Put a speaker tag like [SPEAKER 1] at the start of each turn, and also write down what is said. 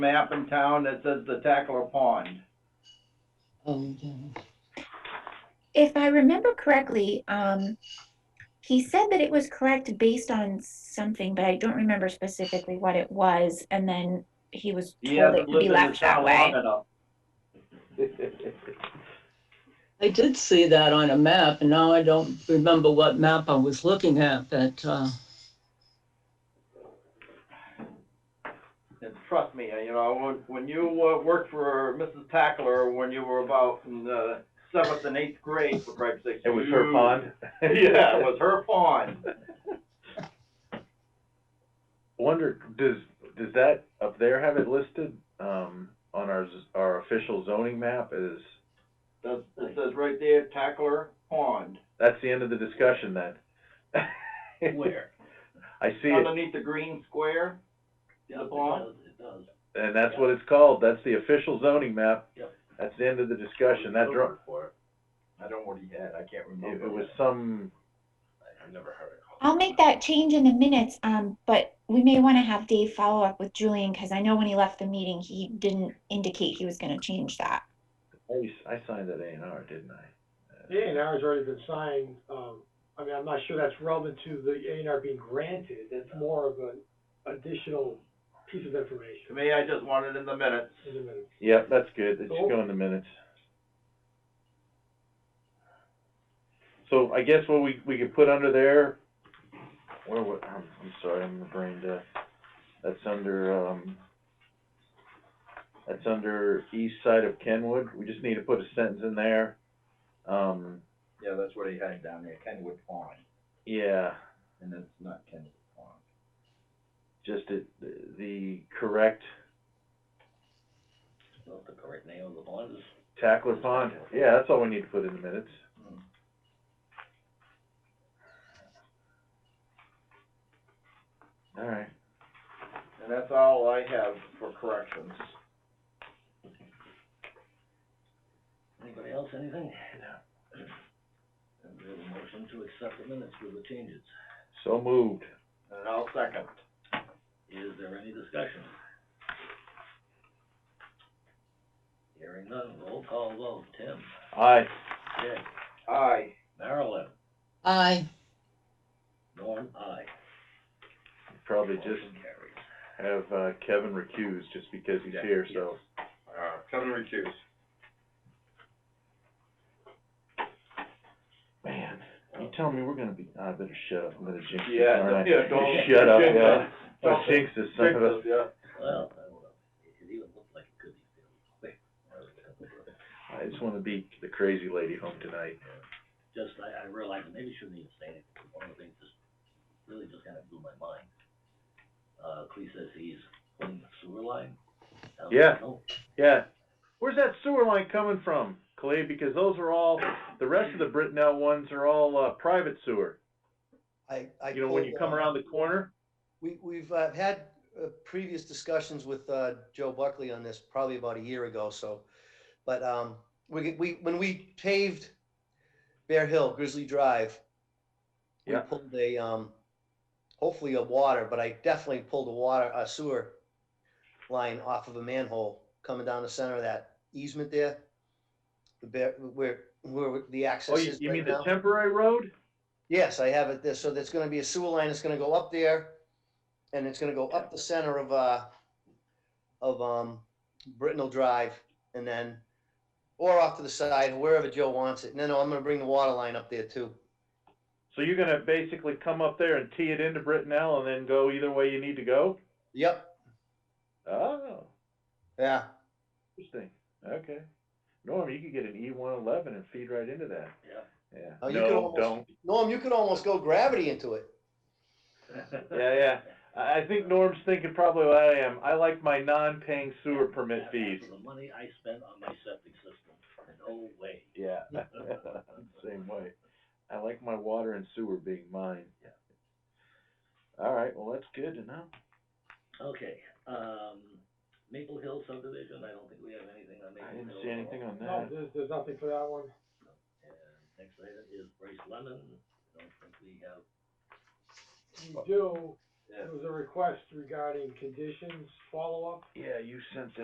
[SPEAKER 1] map in town that says the Tackler Pond.
[SPEAKER 2] Oh, yeah.
[SPEAKER 3] If I remember correctly, um, he said that it was correct based on something, but I don't remember specifically what it was. And then he was
[SPEAKER 1] He
[SPEAKER 3] told
[SPEAKER 1] hasn't
[SPEAKER 3] it could
[SPEAKER 1] lived
[SPEAKER 3] be
[SPEAKER 1] in the
[SPEAKER 3] left that
[SPEAKER 1] town long
[SPEAKER 3] way.
[SPEAKER 1] enough.
[SPEAKER 2] I did see that on a map, and now I don't remember what map I was looking at, but, uh,
[SPEAKER 1] And trust me, you know, when, when you uh, worked for Mrs. Tackler when you were about in the seventh and eighth grade, for Christ's sake.
[SPEAKER 4] It was her
[SPEAKER 1] you-
[SPEAKER 4] pond?
[SPEAKER 1] Yeah, it was her pond.
[SPEAKER 4] Wonder, does, does that up there have it listed, um, on our, z- our official zoning map is,
[SPEAKER 1] That's- It says right there, Tackler Pond,
[SPEAKER 4] that's the end of the discussion then?
[SPEAKER 5] Where?
[SPEAKER 4] I see it,
[SPEAKER 1] underneath the green square.
[SPEAKER 5] Yeah,
[SPEAKER 1] The
[SPEAKER 5] it
[SPEAKER 1] pond?
[SPEAKER 5] does, it does.
[SPEAKER 4] and that's what it's called, that's the official zoning map.
[SPEAKER 5] Yep.
[SPEAKER 4] That's the end of the discussion, that drawing,
[SPEAKER 5] For it.
[SPEAKER 1] I don't know what he had, I can't
[SPEAKER 4] it
[SPEAKER 1] remember.
[SPEAKER 4] it was some,
[SPEAKER 5] I've never heard it called.
[SPEAKER 3] I'll make that change in the minutes, um, but we may want to have Dave follow up with Julian because I know when he left the meeting, he didn't indicate he was going to change that.
[SPEAKER 4] I, I signed that A and R, didn't I?
[SPEAKER 6] The A and R has already been signed, um, I mean, I'm not sure that's relevant to the A and R being granted, it's more of an additional piece of
[SPEAKER 1] To
[SPEAKER 6] information
[SPEAKER 1] me, I just wanted in the minutes.
[SPEAKER 6] in a minute.
[SPEAKER 4] Yep, that's good, it should go in the minutes. So I guess what we, we could put under there, where, what, I'm, I'm sorry, I'm brain dead. That's under, um, that's under east side of Kenwood, we just need to put a sentence in there. Um,
[SPEAKER 1] Yeah, that's what he had down there, Kenwood Pond,
[SPEAKER 4] yeah,
[SPEAKER 1] and it's not Kenwood Pond.
[SPEAKER 4] just it, the correct
[SPEAKER 5] Not the correct name of the pond is.
[SPEAKER 4] Tackler Pond, yeah, that's all we need to put in the minutes. All right,
[SPEAKER 1] And that's all I have for corrections.
[SPEAKER 5] Anybody else, anything? And we have a motion to accept the minutes with the changes.
[SPEAKER 4] so moved.
[SPEAKER 1] And I'll second.
[SPEAKER 5] Is there any discussion? Hearing none, roll call vote, Tim,
[SPEAKER 4] Aye.
[SPEAKER 5] Jay,
[SPEAKER 1] Aye.
[SPEAKER 5] Marilyn,
[SPEAKER 2] I,
[SPEAKER 5] Norm, aye.
[SPEAKER 4] Probably just
[SPEAKER 5] Motion carries.
[SPEAKER 4] have uh, Kevin recuse just because he's
[SPEAKER 5] Yeah,
[SPEAKER 4] here, so.
[SPEAKER 1] Uh, Kevin recuse.
[SPEAKER 4] Man, you tell me we're gonna be, I better shut up, I'm gonna jinx this,
[SPEAKER 1] Yeah,
[SPEAKER 4] aren't I?
[SPEAKER 1] yeah, don't-
[SPEAKER 4] Shut up,
[SPEAKER 1] jinx
[SPEAKER 4] yeah.
[SPEAKER 1] it.
[SPEAKER 4] Don't jinx this, son of a.
[SPEAKER 1] yeah.
[SPEAKER 5] Well, I don't know, it even looked like it could be.
[SPEAKER 4] I just wanna be the crazy lady home tonight.
[SPEAKER 5] just, I, I realized maybe I shouldn't even say it, but one of the things that's really just kind of blew my mind. Uh, Clea says he's putting the sewer line. down the
[SPEAKER 4] Yeah.
[SPEAKER 5] hill.
[SPEAKER 4] Yeah. Where's that sewer line coming from, Clay? Because those are all, the rest of the Britnell ones are all, uh, private sewer.
[SPEAKER 7] I, I.
[SPEAKER 4] You know, when
[SPEAKER 7] pulled,
[SPEAKER 4] you come
[SPEAKER 7] uh,
[SPEAKER 4] around the corner,
[SPEAKER 7] We, we've uh, had uh, previous discussions with uh, Joe Buckley on this probably about a year ago, so. But um, we, we, when we paved Bear Hill Grizzly Drive, we
[SPEAKER 4] Yeah.
[SPEAKER 7] pulled a, um, hopefully a water, but I definitely pulled a water, a sewer line off of a manhole coming down the center of that easement there. The bear, where, where the access
[SPEAKER 4] oh, you,
[SPEAKER 7] is
[SPEAKER 4] you
[SPEAKER 7] right
[SPEAKER 4] mean the
[SPEAKER 7] now.
[SPEAKER 4] temporary road?
[SPEAKER 7] Yes, I have it there. So there's gonna be a sewer line that's gonna go up there and it's gonna go up the center of, uh, of, um, Brittenell Drive and then, or off to the side, wherever Joe wants it. No, no, I'm gonna bring the water line up there too.
[SPEAKER 4] So you're gonna basically come up there and tee it into Britnell and then go either way you need to go?
[SPEAKER 7] Yep,
[SPEAKER 4] Oh.
[SPEAKER 7] yeah.
[SPEAKER 4] Interesting, okay. Norm, you could get an E one eleven and feed right into that,
[SPEAKER 5] Yeah.
[SPEAKER 4] yeah.
[SPEAKER 7] Oh, you could
[SPEAKER 4] No,
[SPEAKER 7] almost-
[SPEAKER 4] don't,
[SPEAKER 7] Norm, you could almost go gravity into it.
[SPEAKER 4] yeah, yeah. I, I think Norm's thinking probably what I am, I like my non-paying sewer permit
[SPEAKER 5] After
[SPEAKER 4] fees.
[SPEAKER 5] The money I spent on my septic system, no way.
[SPEAKER 4] Yeah. Same way. I like my water and sewer being mine. All right, well, that's good to know.
[SPEAKER 5] Okay, um, Maple Hill subdivision, I don't think we have anything on Maple
[SPEAKER 4] I
[SPEAKER 5] Hill.
[SPEAKER 4] didn't
[SPEAKER 5] at
[SPEAKER 4] see
[SPEAKER 5] all.
[SPEAKER 4] anything on
[SPEAKER 6] No,
[SPEAKER 4] that.
[SPEAKER 6] there's, there's nothing for that one.
[SPEAKER 5] And next item is Bryce Lemon, I don't think we have,
[SPEAKER 6] You do,
[SPEAKER 5] Yeah.
[SPEAKER 6] It was a request regarding conditions, follow-up.
[SPEAKER 4] Yeah, you sent that